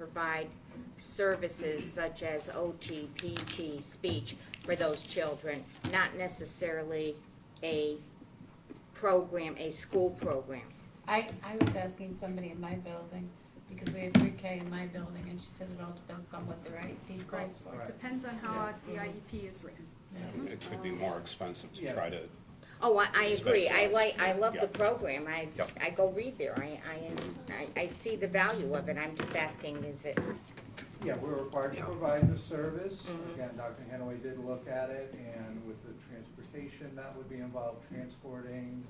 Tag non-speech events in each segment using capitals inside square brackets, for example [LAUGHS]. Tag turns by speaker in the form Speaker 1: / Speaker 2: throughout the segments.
Speaker 1: provide services such as OT, PT, speech for those children, not necessarily a program, a school program.
Speaker 2: I, I was asking somebody in my building, because we have pre K in my building, and she said it all depends on what the IEP calls for.
Speaker 3: It depends on how uh, the IEP is written.
Speaker 4: It could be more expensive to
Speaker 5: Yeah.
Speaker 4: try to,
Speaker 1: Oh, I, I agree, I
Speaker 4: Specialized.
Speaker 1: like, I love the
Speaker 4: Yep.
Speaker 1: program, I,
Speaker 4: Yep.
Speaker 1: I go read there, I, I, I, I see the value of it, I'm just asking, is it,
Speaker 5: Yeah, we're required to provide the service.
Speaker 1: Mm-hmm.
Speaker 5: Again, Dr. Hanaway did look at it, and with the transportation that would be involved, transporting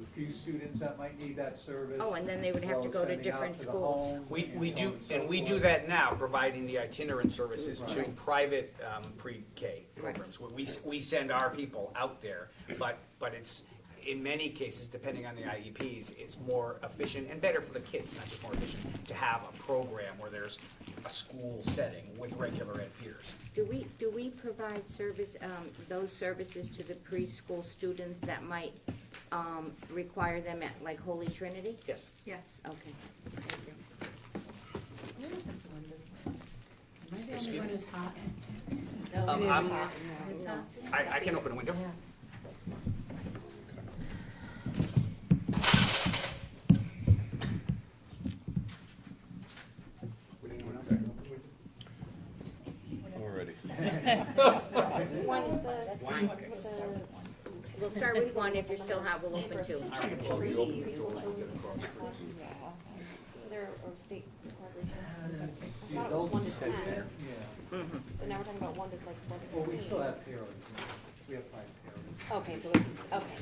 Speaker 5: the few students that might need that service.
Speaker 1: Oh, and then they would
Speaker 5: as
Speaker 1: have
Speaker 5: well
Speaker 1: to
Speaker 5: as
Speaker 1: go to
Speaker 5: sending out
Speaker 1: different
Speaker 5: the
Speaker 1: schools.
Speaker 5: home
Speaker 6: We, we
Speaker 5: so on
Speaker 6: do,
Speaker 5: so
Speaker 6: and we do
Speaker 5: forth. [LAUGHS]
Speaker 6: that now, providing the itinerant services to
Speaker 5: Right.
Speaker 6: private um, pre-K programs. We, we- we send our people out there, but, but it's, in many cases, depending on the IEPs, it's more efficient and better for the kids, it's not just more efficient, to have a program where there's a school setting with regular ed peers.
Speaker 1: do we, do we provide service, um, those services to the preschool students that might, um, require them at, like Holy Trinity?
Speaker 6: Yes.
Speaker 3: Yes.
Speaker 1: Okay, thank you.
Speaker 2: Where is this one? Am I the
Speaker 6: Excuse
Speaker 2: only one
Speaker 6: me?
Speaker 2: who's hot?
Speaker 6: Um, I'm-
Speaker 2: It's hot, just
Speaker 6: I, I
Speaker 2: stuffy.
Speaker 6: can open a window.
Speaker 2: Yeah.
Speaker 6: Would anyone else?
Speaker 4: already.
Speaker 1: One is fine, that's fine.
Speaker 6: Okay.
Speaker 1: We'll start with one, if you're still hot, we'll open two.
Speaker 7: So they're a state
Speaker 5: Uh,
Speaker 7: corporation.
Speaker 5: The
Speaker 7: I thought it was
Speaker 5: adults,
Speaker 7: one
Speaker 5: yeah,
Speaker 7: to ten, so now we're talking about one to like one to
Speaker 5: well, we still
Speaker 7: fifteen.
Speaker 5: have paras, we have five paras.
Speaker 7: Okay, so it's, okay.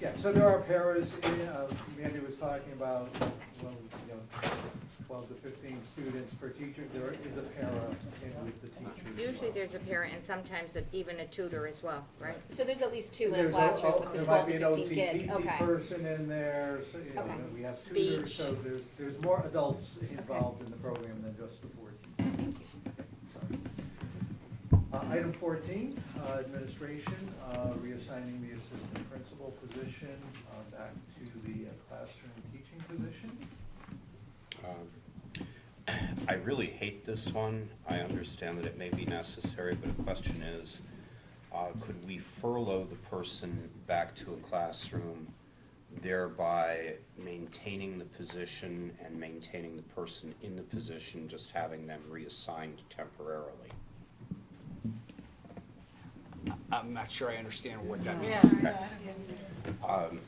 Speaker 5: Yeah, so there are paras, in, uh, Mandy was talking about, well, you know, twelve to fifteen students per teacher, there is a para in with the teacher as
Speaker 1: Usually
Speaker 5: well.
Speaker 1: there's a parent and sometimes a- even a tutor as well, right?
Speaker 7: So there's at least two in a
Speaker 5: There's
Speaker 7: classroom
Speaker 5: al-
Speaker 7: with the
Speaker 5: there
Speaker 7: twelve
Speaker 5: might
Speaker 7: to
Speaker 5: be an
Speaker 7: fifteen kids,
Speaker 5: OT, PT
Speaker 7: okay.
Speaker 5: person in there, so, you know,
Speaker 7: Okay.
Speaker 5: we have tutors,
Speaker 1: Speech.
Speaker 5: so there's, there's more adults involved in the program than just the four teachers. Uh, Item fourteen, uh, administration, uh, reassigning the assistant principal position uh, back to the uh, classroom teaching position.
Speaker 4: Um, I really hate this one. I understand that it may be necessary, but the question is, uh, could we furlough the person back to a classroom, thereby maintaining the position and maintaining the person in the position, just having them reassigned temporarily?
Speaker 6: I'm not sure I understand what that
Speaker 2: Yeah,
Speaker 6: means.
Speaker 2: I know, I don't get it.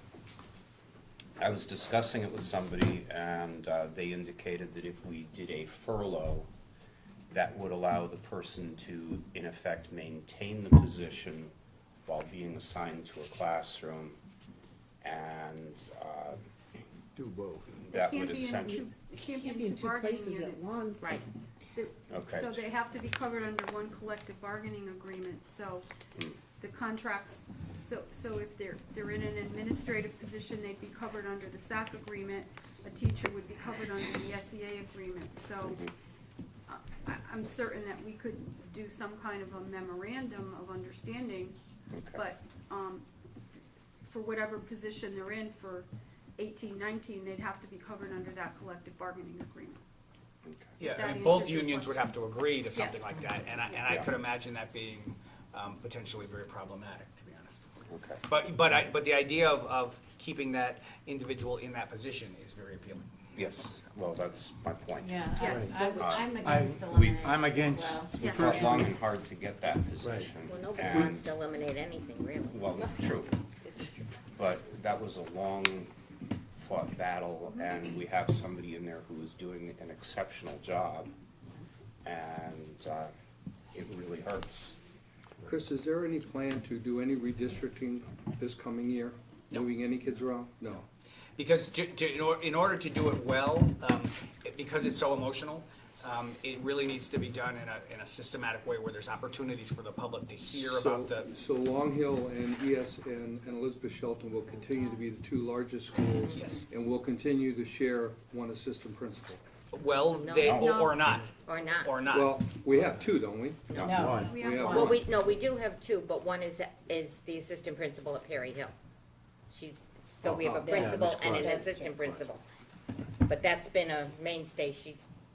Speaker 4: I was discussing it with somebody, and uh, they indicated that if we did a furlough, that would allow the person to, in effect, maintain the position while being assigned to a classroom, and uh,
Speaker 8: Do both.
Speaker 4: that would essentially.
Speaker 3: It can't
Speaker 9: Can't be in two
Speaker 3: bargaining
Speaker 9: places at
Speaker 3: units.
Speaker 9: once.
Speaker 1: Right.
Speaker 3: They're-
Speaker 4: Okay.
Speaker 3: So they have to be covered under one collective bargaining agreement, so
Speaker 4: Hmm.
Speaker 3: the contracts, so, so if they're, they're in an administrative position, they'd be covered under the SAC agreement. A teacher would be covered under the SEA agreement, so
Speaker 4: Mm-hmm.
Speaker 3: uh, I, I'm certain that we could do some kind of a memorandum of understanding,
Speaker 4: Okay.
Speaker 3: but, um, for whatever position they're in for eighteen, nineteen, they'd have to be covered under that collective bargaining agreement.
Speaker 4: okay.
Speaker 6: Yeah,
Speaker 3: That
Speaker 6: I mean,
Speaker 3: answers
Speaker 6: both
Speaker 3: your
Speaker 6: unions would
Speaker 3: question.
Speaker 6: have to agree to something
Speaker 3: Yes.
Speaker 6: like that, and I, and I
Speaker 4: Yes.
Speaker 6: could imagine that being um, potentially very problematic, to be honest.
Speaker 4: Okay.
Speaker 6: But, but I, but the idea of, of keeping that individual in that position is very appealing.
Speaker 4: Yes, well, that's my point.
Speaker 2: Yeah, I-
Speaker 3: Yes.
Speaker 2: I would-
Speaker 4: Uh,
Speaker 2: I'm
Speaker 8: I-
Speaker 2: against
Speaker 8: we-
Speaker 2: eliminating
Speaker 8: I'm
Speaker 2: as
Speaker 8: against-
Speaker 2: well.
Speaker 4: We
Speaker 3: Yes.
Speaker 4: fought long and hard to get that position.
Speaker 1: Well, nobody
Speaker 4: and-
Speaker 1: wants to eliminate anything, really.
Speaker 4: Well, true. But that was a long fought battle and we have somebody in there who is doing an exceptional job. And, uh, it really hurts.
Speaker 10: Chris, is there any plan to do any redistricting this coming year? Moving any kids around? No.
Speaker 6: Because to, to, in or- in order to do it well, um, it- because it's so emotional, um, it really needs to be done in a, in a systematic way where there's opportunities for the public to hear about
Speaker 10: So-
Speaker 6: the,
Speaker 10: So Long Hill and ES and and Elizabeth Shelton will continue to be the two largest schools?
Speaker 6: Yes.
Speaker 10: And will continue to share one assistant principal?
Speaker 6: well, they, or or not,
Speaker 1: Or not.
Speaker 6: or not.
Speaker 10: Well, we have two, don't we?
Speaker 2: No.
Speaker 3: We
Speaker 10: We
Speaker 3: have
Speaker 10: have
Speaker 3: one.
Speaker 1: Well, we, no, we do have two, but one is, is the assistant principal at Perry Hill. She's, so we have a
Speaker 10: Yeah,
Speaker 1: principal
Speaker 8: that's
Speaker 1: and an
Speaker 8: correct.
Speaker 1: assistant principal. But that's been a mainstay, she's